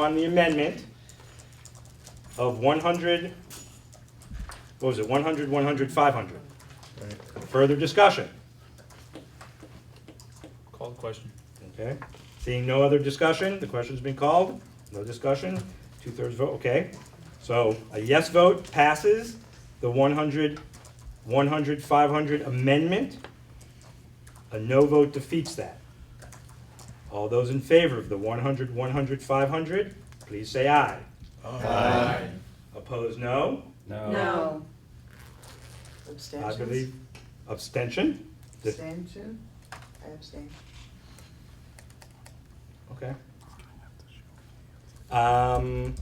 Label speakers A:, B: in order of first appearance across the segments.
A: on the amendment of one hundred, what was it, 100, 100, 500. Further discussion,
B: Call the question.
A: okay? Seeing no other discussion, the question's been called, no discussion, two-thirds vote, okay? So a yes vote passes the 100, 100, 500 amendment. A no vote defeats that. All those in favor of the 100, 100, 500, please say aye.
C: Aye.
A: Opposed, no?
D: No.
A: I
C: Abstentions?
A: believe abstention? the-
C: Abstention? I abstain.
A: Okay. Um,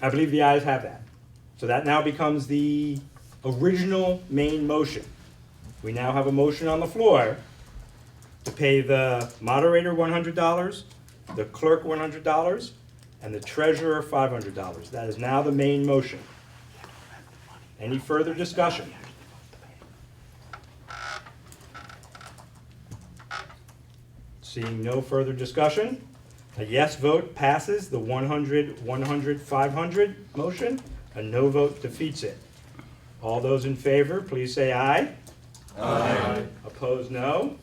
A: I believe the ayes have that. So that now becomes the original main motion. We now have a motion on the floor to pay the moderator one hundred dollars, the clerk one hundred dollars, and the treasurer five hundred dollars. That is now the main motion. Any further discussion? Seeing no further discussion, a yes vote passes the 100, 100, 500 motion. A no vote defeats it. All those in favor, please say aye. Aye. Opposed, no.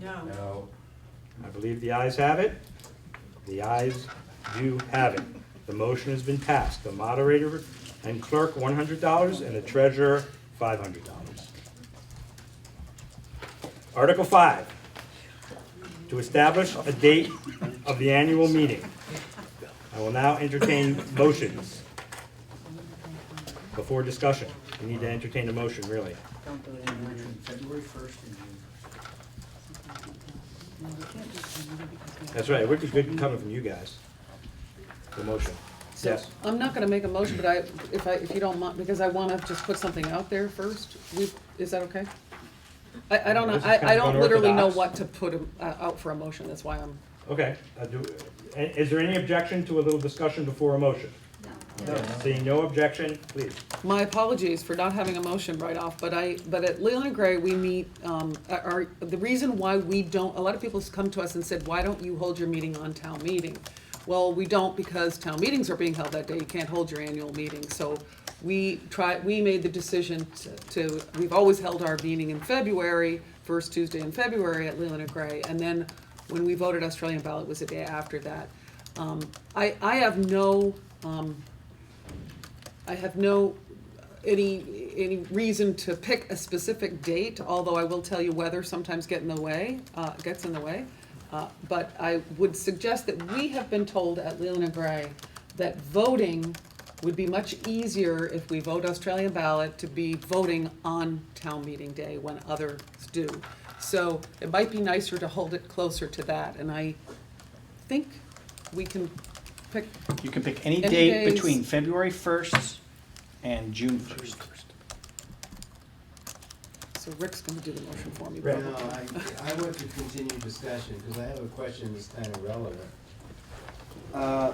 C: No.
A: I believe the ayes have it. The ayes do have it. The motion has been passed. The moderator and clerk, one hundred dollars, and the treasurer, five hundred dollars. Article five, to establish a date of the annual meeting. I will now entertain motions before discussion. We need to entertain a motion, really.
C: Don't do it anymore.
E: February first and June.
A: That's right, it would be good coming from you guys, the motion.
D: So,
A: Yes.
D: I'm not gonna make a motion, but I, if I, if you don't mind, because I wanna just put something out there first, we, is that okay? I, I don't know,
A: This is kind
D: I, I
A: of
D: don't literally know
A: unorthodox.
D: what to put uh, out for a motion, that's why I'm,
A: Okay, I do, i- is there any objection to a little discussion before a motion? No. Seeing no objection, please.
D: my apologies for not having a motion right off, but I, but at Leland Gray, we meet, um, our, the reason why we don't, a lot of people's come to us and said, why don't you hold your meeting on town meeting? Well, we don't because town meetings are being held that day, you can't hold your annual meeting, so we try, we made the decision to- to, we've always held our meeting in February, first Tuesday in February at Leland and Gray, and then when we voted Australian ballot was the day after that. Um, I, I have no, um, I have no, any, any reason to pick a specific date, although I will tell you weather sometimes get in the way, uh, gets in the way. Uh, but I would suggest that we have been told at Leland and Gray that voting would be much easier if we vote Australian ballot to be voting on town meeting day when others do. So it might be nicer to hold it closer to that, and I think we can pick,
F: You can pick any
D: Any
F: date
D: days.
F: between February first and June first.
D: so Rick's gonna do the motion for me.
A: Rick.
D: probably.
E: No, I, I want to continue discussion, because I have a question that's kind of relevant. Uh,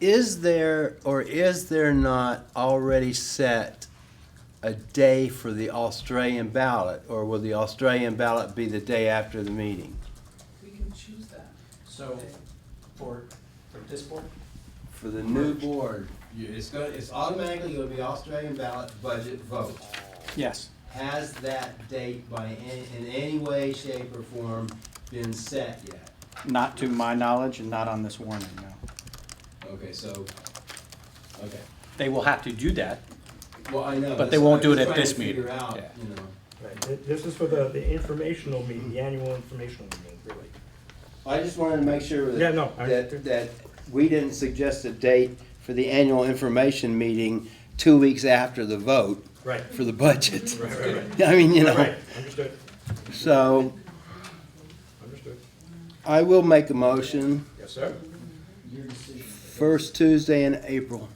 E: Is there, or is there not already set a day for the Australian ballot? Or will the Australian ballot be the day after the meeting?
G: We can choose that.
H: So, for, for this board,
E: For the new board, you- it's gonna, it's automatically gonna be Australian ballot budget vote.
F: Yes.
E: Has that date by, a- in any way, shape, or form been set yet?
F: Not to my knowledge and not on this warning, no.
E: Okay, so, okay,
F: They will have to do that.
E: well, I know.
F: But they
E: that's
F: won't
E: what
F: do it
E: I'm
F: at this
E: trying to figure
F: meeting.
E: out,
F: Yeah.
E: you know.
A: Right, thi- This is for the, the informational meeting, the annual informational meeting, really.
E: I just wanted to make sure that.
A: Yeah, no, I-
E: That, that we didn't suggest a date for the annual information meeting two weeks after the vote
A: Right.
E: for the budget.
A: Right, right, right.
E: I mean, you know,
A: Right, understood,
E: so
A: understood.
E: I will make a motion,
A: Yes, sir?
E: first Tuesday in April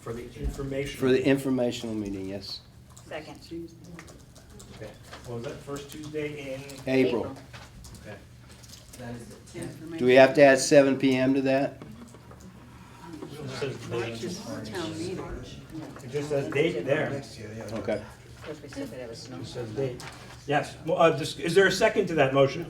A: For the information.
E: for the informational meeting, yes,
C: Second.
A: Okay. What was that, first Tuesday in?
E: April.
A: Okay.
E: Do we have to add seven PM to that?
A: It says date.
C: Town meeting.
A: It just says date there. It
E: Okay.
C: Because we said that it was snow.
A: just says date. Yes, well, uh, just, is there a second to that motion?